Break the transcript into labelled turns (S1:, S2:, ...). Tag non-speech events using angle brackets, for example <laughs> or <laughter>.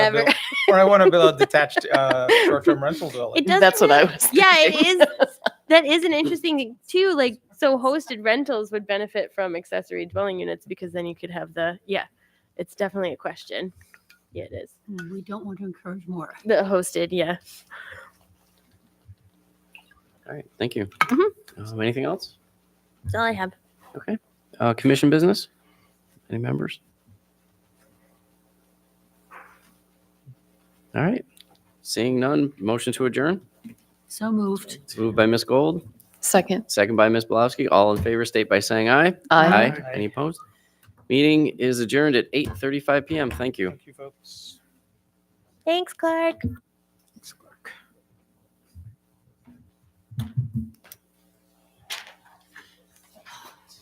S1: a
S2: Ever.
S1: buil- or I want to build a detached
S2: <laughs>
S1: uh, short-term rental building.
S2: It doesn't
S3: That's what I was.
S2: <laughs> yeah, it
S3: thinking.
S2: is. That is an interesting thing too. Like, so hosted rentals would benefit from accessory dwelling units because then you could have the yeah. It's definitely a question. Yeah, it is
S4: Mm, We don't want to encourage more.
S2: the hosted. Yeah,
S5: All right, thank you.
S2: Mhm.
S5: Um, anything else?
S2: that's all I have.
S5: Uh, commission business? Any members? All right, seeing none, motion to adjourn.
S4: So moved.
S5: It's moved by Ms. Gold,
S3: Second.
S5: second by Ms. Blavsky. All in favor, state by saying aye.
S3: I.
S1: Aye.
S5: Any opposed? Meeting is adjourned at 8:35 PM. Thank you.
S1: Thank you, folks.
S2: Thanks, Clark.